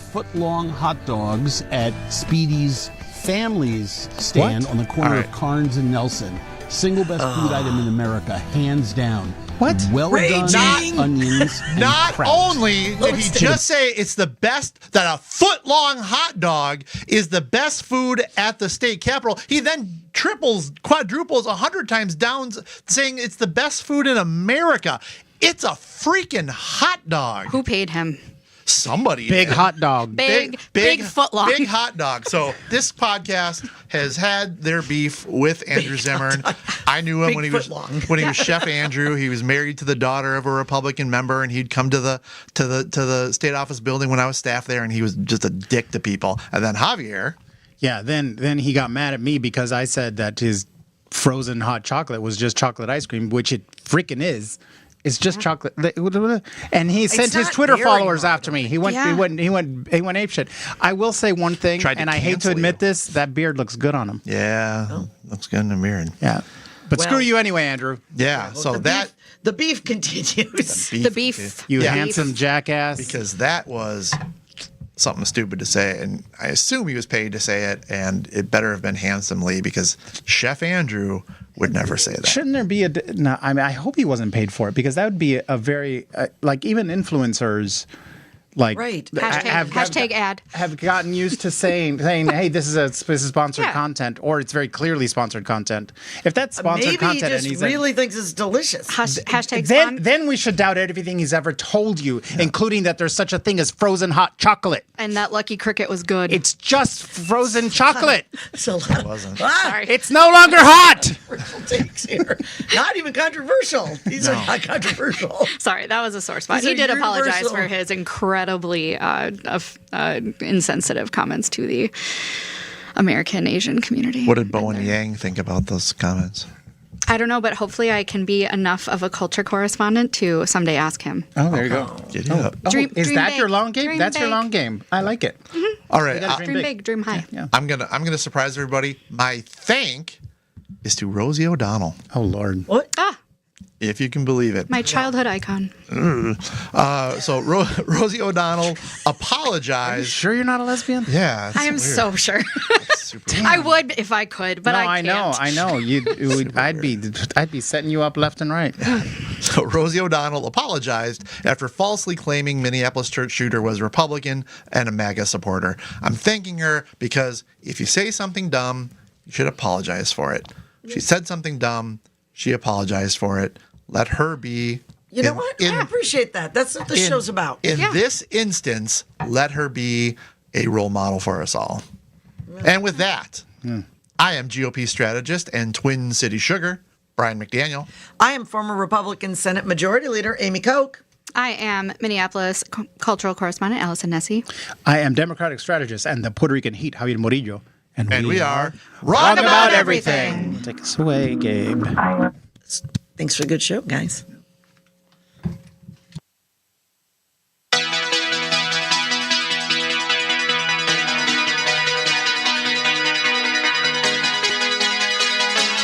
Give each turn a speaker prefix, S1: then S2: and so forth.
S1: foot long hot dogs at Speedy's Family's stand
S2: What?
S1: on the corner
S2: All
S1: of
S2: right.
S1: Carnes and Nelson. Single best food item in America, hands down.
S2: What?
S1: Well done
S3: Raging.
S1: onions. and
S2: Not
S1: kraut.
S2: only did he
S3: it's-
S2: just say it's the best that a foot long hot dog is the best food at the state capitol, he then triples, quadruples, a hundred times down, saying it's the best food in America. It's a freaking hot dog.
S3: Who paid him?
S2: Somebody
S4: Big hot dog.
S3: Big, big, foot long.
S2: big hot dog. So this podcast has had their beef with Andrew Zimmern. I knew him
S3: Big
S2: when he was
S3: foot long.
S2: when he was Chef Andrew. He was married to the daughter of a Republican member, and he'd come to the to the to the state office building when I was staff there, and he was just a dick to people. And then Javier,
S4: Yeah, then then he got mad at me because I said that his frozen hot chocolate was just chocolate ice cream, which it freaking is. It's just chocolate. And he sent his
S5: not
S4: Twitter
S5: dairy
S4: followers
S5: though, I
S4: after me. He went,
S3: Yeah.
S4: he went, he went, he went apeshit. I will say one thing,
S2: Tried to
S4: and I hate to
S2: cancel
S4: admit
S2: you.
S4: this: that beard looks good on him.
S2: yeah,
S3: Oh.
S2: looks good in the mirror.
S4: Yeah, but
S5: Well-
S4: screw you anyway, Andrew.
S2: Yeah, so
S5: the
S2: that
S5: beef, the beef continues.
S3: the beef.
S4: You
S2: Yeah.
S4: handsome jackass.
S2: because that was something stupid to say, and I assume he was paid to say it, and it better have been handsomely because Chef Andrew would never say that.
S4: Shouldn't there be a? d- No, I mean, I hope he wasn't paid for it because that would be a very uh, like even influencers, like
S5: Right.
S4: th-
S3: Hashtag- hashtag ad.
S4: have gotten used to saying saying, "Hey, this is a this is sponsored
S3: Yeah. Uh,
S4: content," or it's very clearly sponsored content. If that's sponsored
S5: Maybe he
S4: content, and
S5: just
S4: he's
S5: really thinks it's delicious.
S3: Hash, hashtags
S4: then
S3: on-
S4: then we should doubt everything he's ever told you, including that there's such a thing as frozen hot chocolate.
S3: and that lucky cricket was good.
S4: It's just frozen chocolate.
S5: It's a lot of ah,
S4: it's no longer hot.
S5: controversial takes here. Not even controversial. These are not controversial.
S3: Sorry, that was a sore spot.
S5: These
S3: He
S5: are
S3: did apologize
S5: universal.
S3: for his incredibly uh, of, uh, insensitive comments to the American Asian community.
S2: What did Bowen Yang think about those comments?
S3: I don't know, but hopefully I can be enough of a culture correspondent to someday ask him.
S4: Oh, there you go.
S2: Get it up.
S4: Oh,
S3: Dream-
S4: is
S3: dream
S4: that
S3: big.
S4: your long game?
S3: Dream
S4: That's your
S3: big.
S4: long game. I like it.
S2: All right,
S4: gotta
S2: I,
S3: Dream big, dream high.
S2: I'm gonna I'm gonna surprise everybody. My thank is to Rosie O'Donnell,
S4: Oh Lord.
S3: Ah,
S2: if you can believe it.
S3: my childhood icon.
S2: Uh, so Ro- Rosie O'Donnell apologized.
S4: Sure, you're not a lesbian?
S2: Yeah, it's
S3: I am
S2: weird.
S3: so sure.
S2: It's super weird.
S3: I would if I could, but
S4: no,
S3: I
S4: I,
S3: can't.
S4: know, I know. You, it would- I'd be, I'd be setting you up left and right.
S2: So Rosie O'Donnell apologized after falsely claiming Minneapolis church shooter was Republican and a MAGA supporter. I'm thanking her because if you say something dumb, you should apologize for it. She said something dumb. She apologized for it. Let her be.
S5: You know
S2: In-
S5: what?
S2: in-
S5: I appreciate that. That's what the
S2: in-
S5: show's about.
S2: In
S3: Yeah.
S2: this instance, let her be a role model for us all. And with that, I am GOP strategist and Twin City Sugar, Brian McDaniel.
S5: I am former Republican Senate Majority Leader Amy Koch.
S3: I am Minneapolis cu- cultural correspondent Allison Nessie.
S4: I am Democratic strategist and the Puerto Rican heat, Javier Morillo,
S2: And we are
S4: wrong
S2: Roundabout
S4: about
S5: everything.
S4: everything. Take us away, Gabe.
S5: Thanks for a good show, guys.